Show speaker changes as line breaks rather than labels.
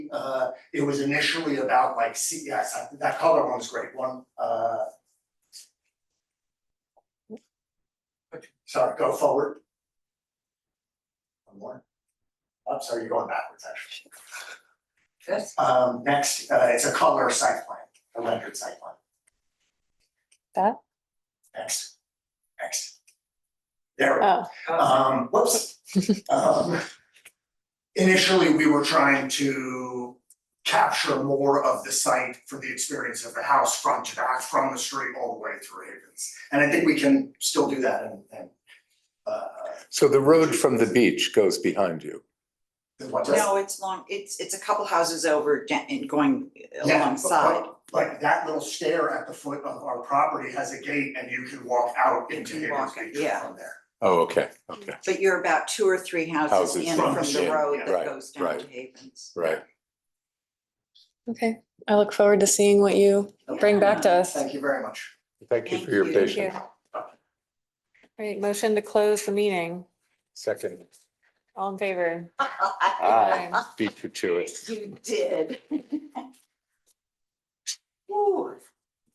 uh, it was initially about like, see, yes, I- that color one's great, one, uh. Sorry, go forward. One more. I'm sorry, you're going backwards, actually.
Good.
Um, next, uh, it's a color site plan, a rendered site plan.
That?
Next, next. There we go.
Oh,
Um, whoops. Um, Initially, we were trying to capture more of the site for the experience of the house front to back, from the street all the way through Havens. And I think we can still do that and, and, uh,
So the road from the beach goes behind you.
what does?
No, it's long, it's, it's a couple houses over da- and going
Yeah,
alongside.
but- Like that little stair at the foot of our property has a gate and you can walk out
You
into
can
Havens
walk it,
Beach
yeah.
from there.
Oh, okay, okay,
But you're about two or three houses
Houses
in
from
from
the-
the road
yeah,
that
right,
goes down to
right.
Havens.
right.
okay. I look forward to seeing what you bring back to us. All
Thank you very much.
Thank you
Thank
for your
you.
patience.
right, motion to close the meeting.
Second,
All in favor?
Aye. beat you to it.
You did. Ooh.